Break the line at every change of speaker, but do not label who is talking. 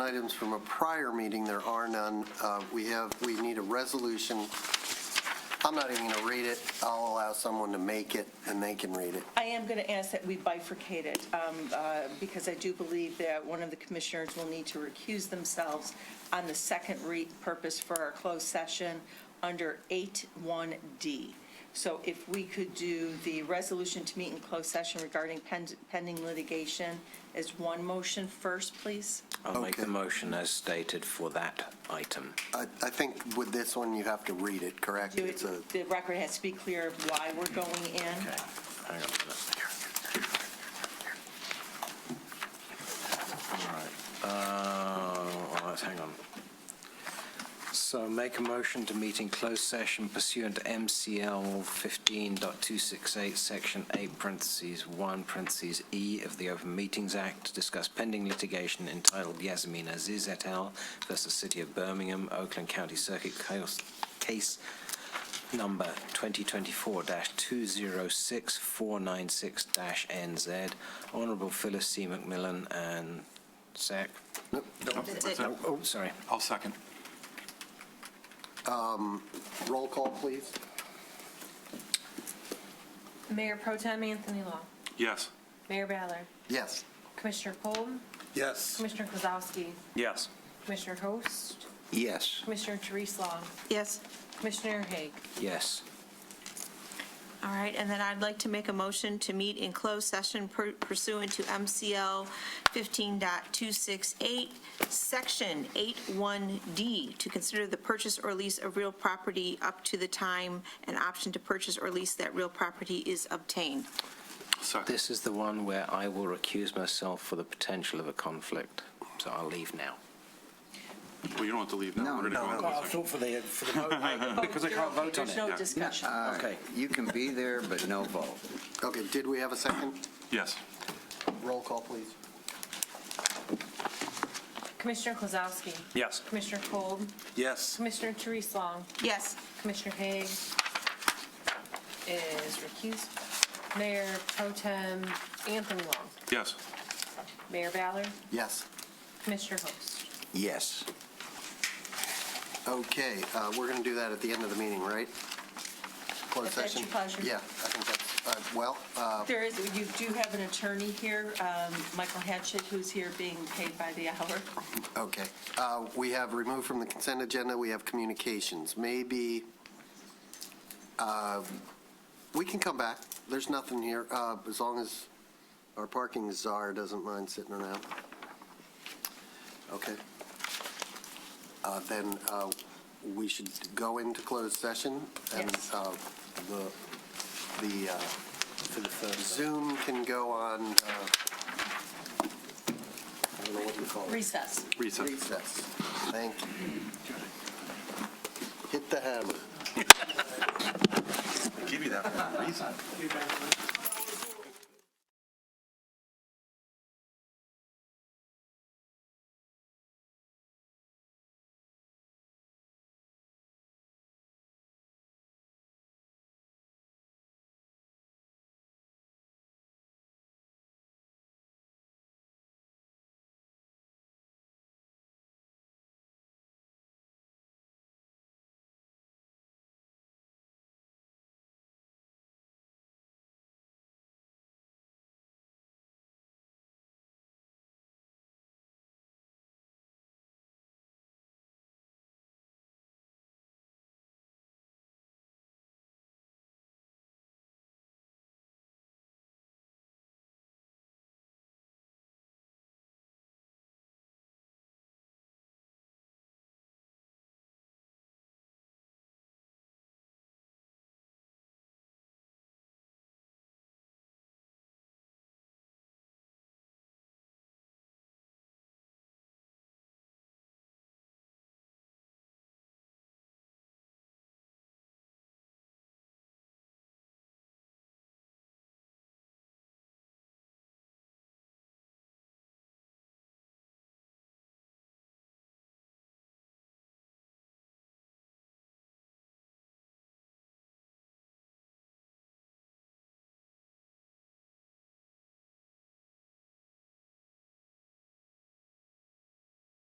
items from a prior meeting, there are none. Uh, We have, we need a resolution. I'm not even going to read it. I'll allow someone to make it, and they can read it.
I am going to ask that we bifurcate it, um, uh, because I do believe that one of the commissioners will need to recuse themselves on the second re, purpose for our closed session under 81D. So if we could do the resolution to meet in closed session regarding pen- pending litigation as one motion first, please?
I'll make the
Okay.
motion as stated for that item.
I I think with this one, you have to read it, correct?
Do
It's a
it- The record has to be clear of why we're going in.
Okay, hang on a minute. All right, uh, well, let's hang on. So make a motion to meet in closed session pursuant to MCL 15.268, Section 8, parentheses 1, parentheses E of the Open Meetings Act to discuss pending litigation entitled Yasmin Aziz et al. versus City of Birmingham, Oakland County Circuit Case- Case number 2024-206496-NZ, Honourable Phyllis C. McMillan and Sec. Oh, sorry.
I'll second.
roll call, please.
Mayor Pro Tem Anthony Long.
Yes.
Mayor Ballard.
Yes.
Commissioner Polden.
Yes.
Commissioner Kozowski.
Yes.
Commissioner Host.
Yes.
Commissioner Therese Long.
Yes.
Commissioner Haig.
Yes.
All right, and then I'd like to make a motion to meet in closed session per- pursuant to MCL 15.268, Section 81D, to consider the purchase or lease of real property up to the time an option to purchase or lease that real property is obtained.
Second.
This is the one where I will recuse myself for the potential of a conflict, so I'll leave now.
Well, you don't have to leave now. We're gonna go into
Well, I
a second.
thought for the, for the vote.
Because I can't vote on
There's
it.
no
Yeah.
discussion.
Uh,
Okay.
You can be there, but no vote.
Okay, did we have a second?
Yes.
Roll call, please.
Commissioner Kozowski.
Yes.
Commissioner Polden.
Yes.
Commissioner Therese Long.
Yes.
Commissioner Haig is recused. Mayor Pro Tem Anthony Long.
Yes.
Mayor Ballard.
Yes.
Commissioner Host.
Yes.
Okay, uh, we're going to do that at the end of the meeting, right? Closed
If that's
session?
your pleasure.
Yeah, I think that's, uh, well, uh,
There is, you do have an attorney here, um, Michael Hatchett, who's here being paid by the hour.
okay. Uh, We have removed from the consent agenda, we have communications. Maybe, uh, we can come back. There's nothing here, uh, as long as our parking czar doesn't mind sitting around. Okay. Uh, Then uh, we should go into closed session. and
Yes.
uh, The, the uh, Zoom can go on, uh, I don't know what you call it.
Recess.
Recess.
Recess. Thank you. Hit the hammer.
Give you that for a reason.